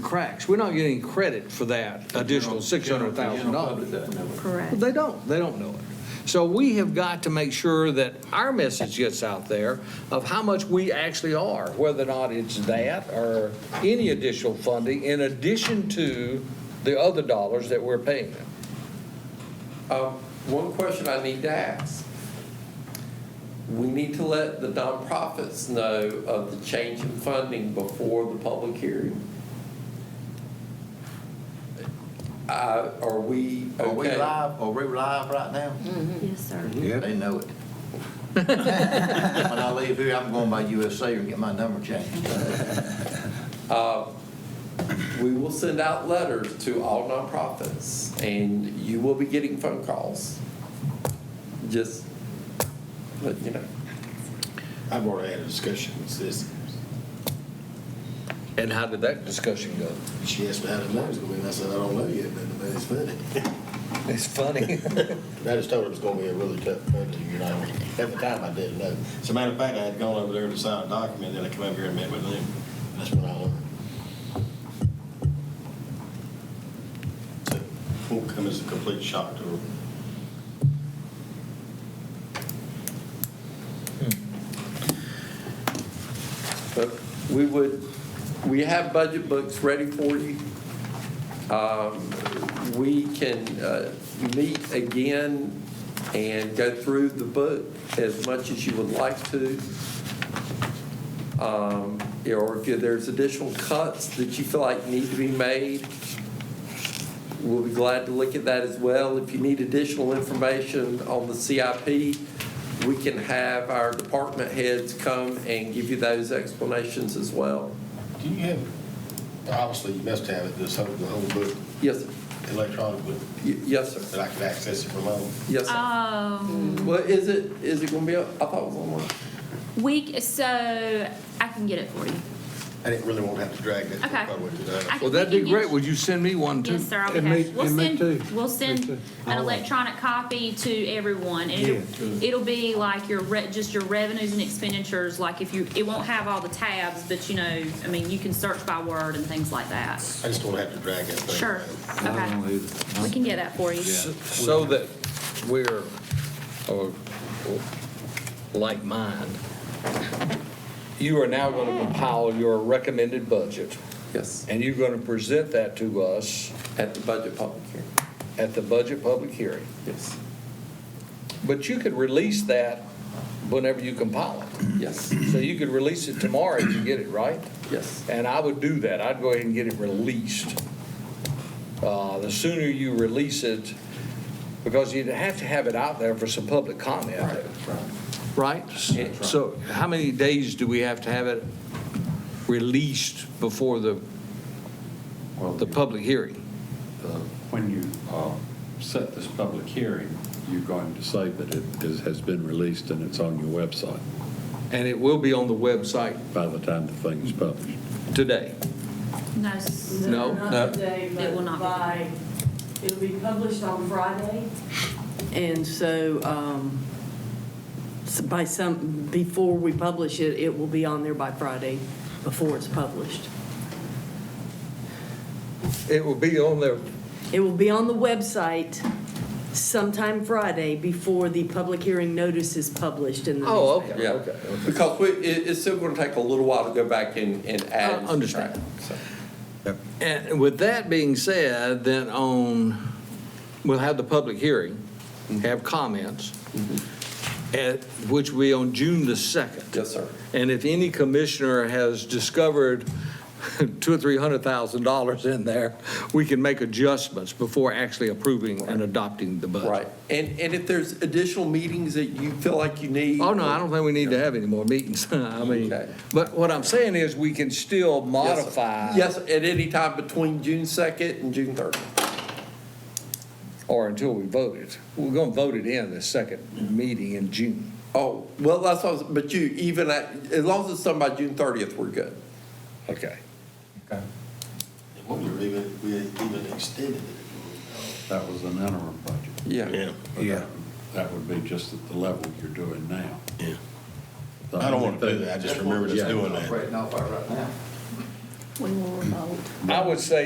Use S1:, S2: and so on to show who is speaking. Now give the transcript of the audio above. S1: cracks. We're not getting credit for that additional
S2: General- the general public
S1: $600,000.
S2: doesn't know it.
S1: Well,
S3: Correct.
S1: They don't, they don't know it. So we have got to make sure that our message gets out there of how much we actually are, whether or not it's that or any additional funding in addition to the other dollars that we're paying them.
S2: Um, One question I need to ask. We need to let the nonprofits know of the change in funding before the public hearing. Uh, Are we okay?
S4: Are we live, are we live right now?
S5: Mm-hmm.
S3: Yes, sir.
S4: They know it. When I leave here, I'm going by USA and get my number changed.
S2: We will send out letters to all nonprofits, and you will be getting phone calls. Just, let you know.
S6: I've already had a discussion with this,
S1: And how did that discussion go?
S6: she asked me how the money's gonna be, and I said, I don't know yet, but the money's funded.
S1: It's funny.
S6: And I just told her it was gonna be a really tough budget, you know, at the time I didn't know. As a matter of fact, I had gone over there to sign a document, then I come over here and met with them, that's when I learned. So, it Won't come as a complete shock to her.
S2: But we would, we have budget books ready for you. Um, We can uh, meet again and go through the book as much as you would like to. Um, Or if there's additional cuts that you feel like need to be made, we'll be glad to look at that as well. If you need additional information on the CIP, we can have our department heads come and give you those explanations as well.
S6: Do you have, obviously, you must have it, this whole, the whole book
S2: Yes, sir.
S6: electronically,
S2: Y- Yes, sir.
S6: that I could access it from home?
S2: Yes, sir.
S5: Oh,
S1: Um,
S2: Well, is it, is it gonna be, up? I thought it was online.
S5: we, so I can get it for you.
S6: I didn't really want to have to drag that.
S5: Okay.
S6: probably today.
S5: I-
S1: Well, that'd be great. Would you send me one too?
S5: Yes, sir, I'll be
S7: And
S5: happy.
S7: me-
S5: We'll
S7: and me
S5: send,
S7: too.
S5: we'll
S7: Me
S5: send
S7: too.
S5: an electronic copy to everyone. and It'll, it'll be like your, re- just your revenues and expenditures, like if you, it won't have all the tabs, but you know, I mean, you can search by word and things like that.
S6: I just don't have to drag that thing.
S5: Sure, okay. We can get that for you.
S1: So that we're, or, or like mine, you are now going to compile your recommended budget,
S2: Yes,
S1: and you're going to present that to us
S2: at the budget public hearing.
S1: at the budget public hearing.
S2: Yes,
S1: But you could release that whenever you compile it.
S2: yes,
S1: So you could release it tomorrow if you get it right.
S2: yes.
S1: And I would do that. I'd go ahead and get it released. Uh, The sooner you release it, because you'd have to have it out there for some public comment. Right? So how many days do we have to have it released before the,
S8: Well,
S1: the public hearing?
S8: When you uh, set this public hearing, you're going to say that it is- has been released and it's on your website
S1: And it will be on the website
S8: by the time the thing is published.
S1: today.
S5: No, s-
S1: No, no.
S9: Not today,
S5: It will not
S9: but
S5: be
S9: by, it'll be published on Friday. And so, um, s- by some, before we publish it, it will be on there by Friday, before it's published.
S1: It will be on there
S9: It will be on the website sometime Friday before the public hearing notice is published in the newspaper.
S1: Oh, okay.
S2: Yeah, because we, it, it's still gonna take a little while to go back and, and add. and
S1: I Uh, understand.
S2: subtract, so.
S1: And with that being said, then on, we'll have the public hearing,
S2: Mm-hmm.
S1: have comments, at, which will be on June the 2nd.
S2: Yes, sir.
S1: And if any commissioner has discovered two or three hundred thousand dollars in there, we can make adjustments before actually approving and adopting the budget.
S2: Right. And, and if there's additional meetings that you feel like you need.
S1: Oh, no, I don't think we need to have any more meetings. I mean,
S2: Okay.
S1: but what I'm saying is, we can still
S2: Yes, sir.
S1: modify.
S2: Yes, at any time between June 2nd and June 30th.
S1: Or until we vote it. We're gonna vote it in the second meeting in June.
S2: Oh, well, that's, what I was- but you, even at, as long as it's done by June 30th, we're good.
S1: Okay.
S6: And What we were even, we had even extended it.
S8: That was an interim budget.
S2: Yeah.
S8: But that- That would be just at the level you're doing now.
S6: I don't want to do that, I just remember just doing that.
S4: Operating off of right now.
S3: when we're remote.
S1: I would say